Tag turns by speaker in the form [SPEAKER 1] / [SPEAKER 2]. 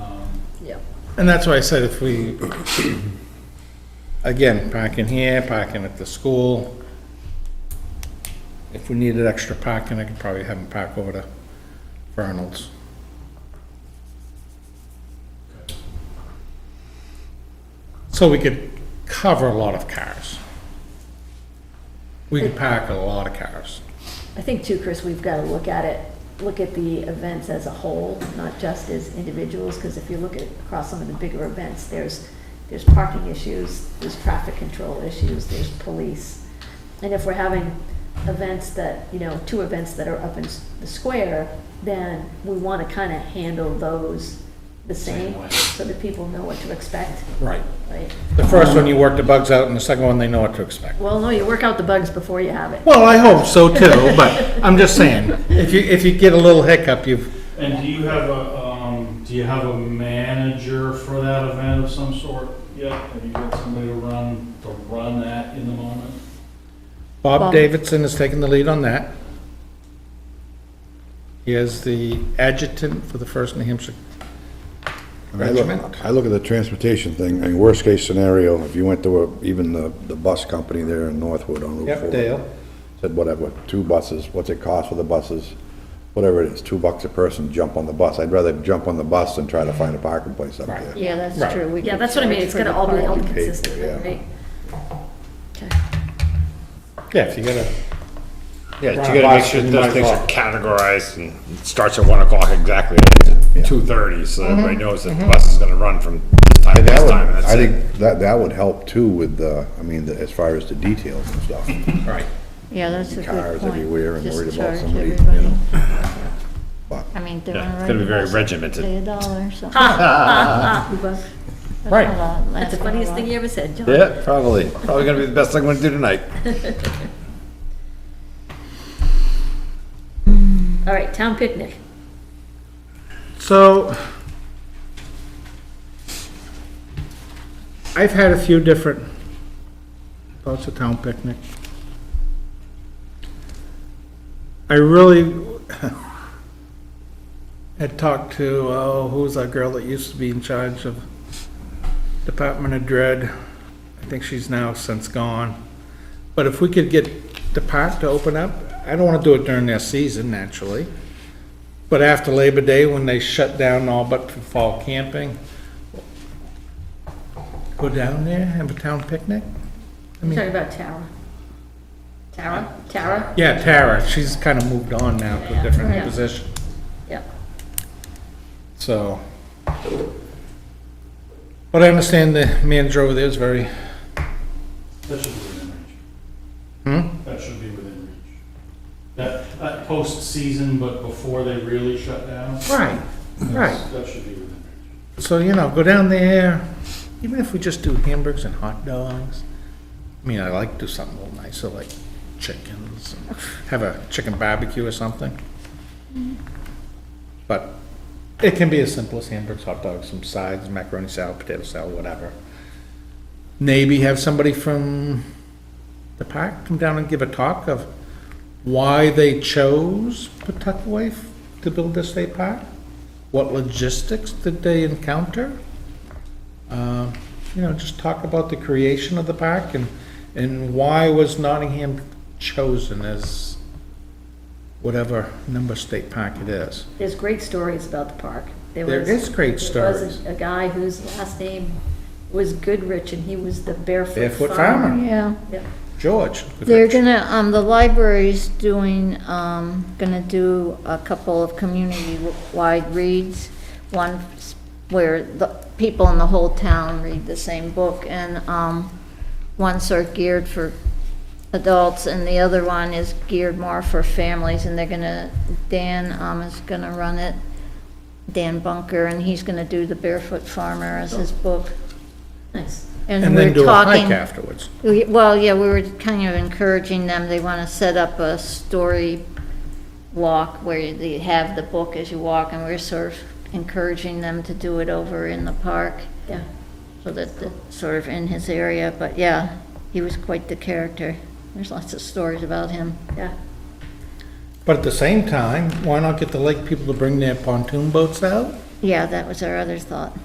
[SPEAKER 1] And that's why I said if we, again, parking here, parking at the school. If we needed extra parking, I could probably have them park over to Vernal's. So we could cover a lot of cars. We could park a lot of cars.
[SPEAKER 2] I think too, Chris, we've got to look at it, look at the events as a whole, not just as individuals, because if you look at, across some of the bigger events, there's, there's parking issues, there's traffic control issues, there's police. And if we're having events that, you know, two events that are up in s- the square, then we want to kind of handle those the
[SPEAKER 3] Same
[SPEAKER 2] same,
[SPEAKER 3] way.
[SPEAKER 2] so that people know what to expect,
[SPEAKER 1] Right.
[SPEAKER 2] right?
[SPEAKER 1] The first one, you work the bugs out, and the second one, they know what to expect.
[SPEAKER 2] Well, no, you work out the bugs before you have it.
[SPEAKER 1] Well, I hope so too, but I'm just saying, if you, if you get a little hiccup, you've,
[SPEAKER 3] And do you have a, um, do you have a manager for that event of some sort? Yeah, have you got somebody to run, to run that in the moment?
[SPEAKER 1] Bob
[SPEAKER 2] Bob.
[SPEAKER 1] Davidson has taken the lead on that. He is the adjutant for the First New Hampshire
[SPEAKER 4] I look-
[SPEAKER 1] Regiment.
[SPEAKER 4] I look at the transportation thing, and worst-case scenario, if you went to a- even the, the bus company there in Northwood on Route 4.
[SPEAKER 1] Yep, Dale.
[SPEAKER 4] Said whatever, two buses, what's it cost for the buses? Whatever it is, two bucks a person, jump on the bus. I'd rather jump on the bus than try to find a parking place up
[SPEAKER 1] Right.
[SPEAKER 4] there.
[SPEAKER 5] Yeah,
[SPEAKER 1] Right.
[SPEAKER 5] that's true. We
[SPEAKER 2] Yeah,
[SPEAKER 5] could
[SPEAKER 2] that's what I mean,
[SPEAKER 5] charge
[SPEAKER 2] it's
[SPEAKER 5] for
[SPEAKER 2] got to
[SPEAKER 5] the
[SPEAKER 2] all be
[SPEAKER 5] parking.
[SPEAKER 2] held
[SPEAKER 4] parking.
[SPEAKER 2] consistently,
[SPEAKER 4] Yeah.
[SPEAKER 2] right? Okay.
[SPEAKER 1] Yeah, if you gotta,
[SPEAKER 6] Yeah,
[SPEAKER 1] Right.
[SPEAKER 6] you gotta make sure
[SPEAKER 1] Boston,
[SPEAKER 6] those
[SPEAKER 1] my
[SPEAKER 6] things are
[SPEAKER 1] fault.
[SPEAKER 6] categorized and it starts at one o'clock exactly, two thirty, so everybody knows that the bus is gonna run from this time to
[SPEAKER 4] And
[SPEAKER 6] this
[SPEAKER 4] that would,
[SPEAKER 6] time, and that's
[SPEAKER 4] I
[SPEAKER 6] it.
[SPEAKER 4] think that, that would help too with the, I mean, the- as far as the details and stuff.
[SPEAKER 1] right,
[SPEAKER 5] Yeah, that's a good point.
[SPEAKER 4] Cars everywhere and
[SPEAKER 5] Just
[SPEAKER 4] worried about
[SPEAKER 5] charge
[SPEAKER 4] somebody, you
[SPEAKER 5] everybody.
[SPEAKER 4] know.
[SPEAKER 5] I mean, they're
[SPEAKER 6] Yeah,
[SPEAKER 5] on
[SPEAKER 6] it's gonna be very
[SPEAKER 5] regular bus,
[SPEAKER 6] regimented.
[SPEAKER 5] Pay a dollar or something. That's
[SPEAKER 1] Right.
[SPEAKER 5] a lot,
[SPEAKER 2] That's the
[SPEAKER 5] gonna
[SPEAKER 2] funniest
[SPEAKER 5] last.
[SPEAKER 2] thing you ever said, John.
[SPEAKER 6] Yeah, probably, probably gonna be the best thing I'm gonna do tonight.
[SPEAKER 2] All right, town picnic.
[SPEAKER 1] so. I've had a few different thoughts of town picnic. I really had talked to, oh, who was that girl that used to be in charge of Department of Dread? I think she's now since gone. But if we could get the park to open up, I don't want to do it during their season naturally. But after Labor Day, when they shut down all but for fall camping, go down there, have a town picnic? I
[SPEAKER 2] You're
[SPEAKER 1] mean-
[SPEAKER 2] talking about Tara. Tara, Tara,
[SPEAKER 1] Yeah, Tara, she's kind of moved on now to a different
[SPEAKER 2] Yeah.
[SPEAKER 1] position,
[SPEAKER 2] yeah.
[SPEAKER 1] so. But I understand the manager over there is very,
[SPEAKER 3] That should be within reach.
[SPEAKER 1] hmm?
[SPEAKER 3] That should be within reach. That, that post-season, but before they really shut down.
[SPEAKER 1] Right, right.
[SPEAKER 3] That should be within reach.
[SPEAKER 1] So, you know, go down there, even if we just do hamburgers and hot dogs. I mean, I like to do something a little nicer, like chickens, and have a chicken barbecue or something. But it can be as simple as hamburgers, hot dogs, some sides, macaroni salad, potato salad, whatever. Maybe have somebody from the park come down and give a talk of why they chose Pawtucket f to build this state park. What logistics did they encounter? Um, You know, just talk about the creation of the park and, and why was Nottingham chosen as whatever number state park it is.
[SPEAKER 2] There's great stories about the park.
[SPEAKER 1] There
[SPEAKER 2] was-
[SPEAKER 1] is great
[SPEAKER 2] there was
[SPEAKER 1] stories.
[SPEAKER 2] A a guy whose last name was Goodrich, and he was the barefoot farmer.
[SPEAKER 1] Barefoot farmer.
[SPEAKER 5] Yeah.
[SPEAKER 2] Yeah.
[SPEAKER 1] George.
[SPEAKER 5] They're gonna, um, the library's doing, um, gonna do a couple of community-wide reads. One s- where the people in the whole town read the same book, and, um, one's are geared for adults, and the other one is geared more for families, and they're gonna, Dan, um, is gonna run it, Dan Bunker, and he's gonna do The Barefoot Farmer as his book.
[SPEAKER 2] Nice.
[SPEAKER 1] Oh. And then
[SPEAKER 5] we're
[SPEAKER 1] do a hike
[SPEAKER 5] talking-
[SPEAKER 1] afterwards.
[SPEAKER 5] we- Well, yeah, we were kind of encouraging them, they want to set up a story walk where they have the book as you walk, and we're sort of encouraging them to do it over in the park,
[SPEAKER 2] Yeah.
[SPEAKER 5] so that, the- sort of in his area, but yeah, he was quite the character. There's lots of stories about him.
[SPEAKER 2] Yeah.
[SPEAKER 1] But at the same time, why not get the lake people to bring their pontoon boats out?
[SPEAKER 5] Yeah, that was our other thought.